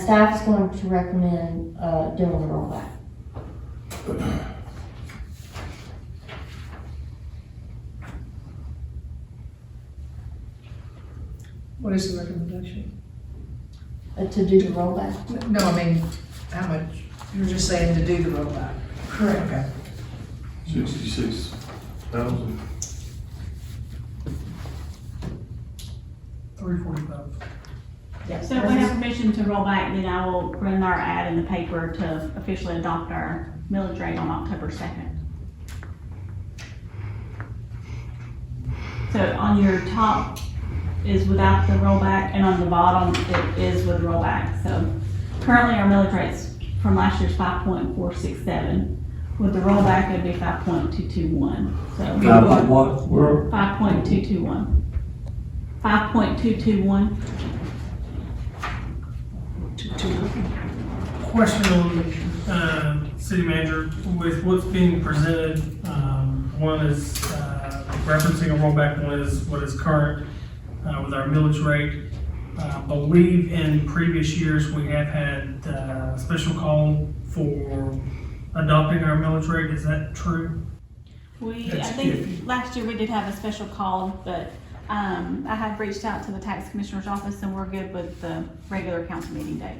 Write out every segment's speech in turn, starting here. staff is going to recommend, uh, doing a rollback. What is the recommendation? Uh, to do the rollback. No, I mean, how much, you were just saying to do the rollback. Correct. Okay. Sixty-six thousand. Three forty-five. Yes. So if we have permission to roll back, then I will run our ad in the paper to officially adopt our millage rate on October second. So on your top is without the rollback, and on the bottom it is with rollback, so currently our millage rate's from last year's five point four six seven. With the rollback, it'd be five point two two one, so Five point what? We're, five point two two one. Five point two two one. Question on, um, city manager, with what's being presented, um, one is, uh, referencing a rollback, one is what is current, uh, with our millage rate. Uh, I believe in previous years, we have had, uh, special call for adopting our millage rate, is that true? We, I That's think iffy. last year we did have a special call, but, um, I have reached out to the tax commissioner's office and we're good with the regular council meeting date.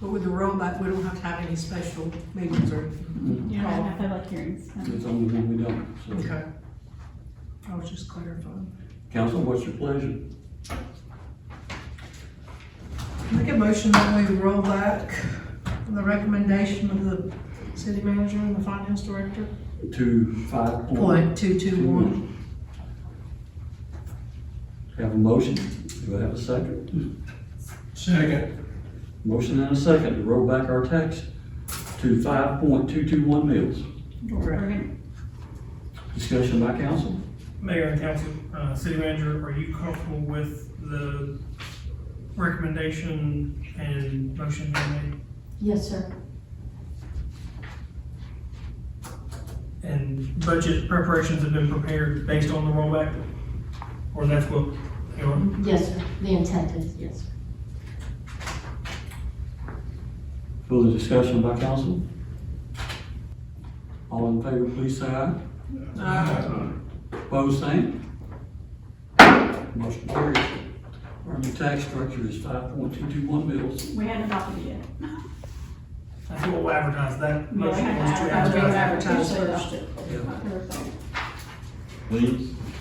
But with the rollback, we don't have to have any special meetings or anything. You don't have public hearings. that's the only thing we don't, so. Okay. I was just clarifying. Council, what's your pleasure? Make a motion that we roll back the recommendation of the city manager and the finance director. To five point, Point two two one. have a motion, do I have a second? Second. Motion and a second to roll back our tax to five point two two one mils. We're gonna- Discussion by council? Mayor and council, uh, city manager, are you comfortable with the recommendation and motion being Yes, sir. made? And budget preparations have been prepared based on the rollback? Or that's what, you know, Yes, sir. The intent is, yes. sir. Further discussion by council? All in favor, please say aye. Opposed, same? Motion carries. Our new tax structure is five point two two one mils. We haven't adopted it yet. that's what we'll advertise, that We motion was to haven't advertise. advertise officially first. adopted Yeah. it. October 2nd. Please.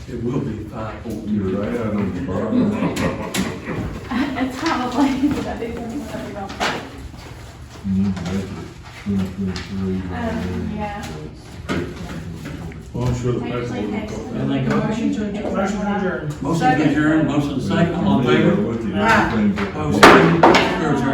It will be five point two. You're right on the bottom. It's probably, because I did something with every roll. Um, yeah. Well, I'm sure the Take- paperwork. will take- come. And they go. Motion to adjourn. Motion to adjourn. Motion to adjourn, motion second, all in favor? With you. Aye. Opposed, same? We're adjourned.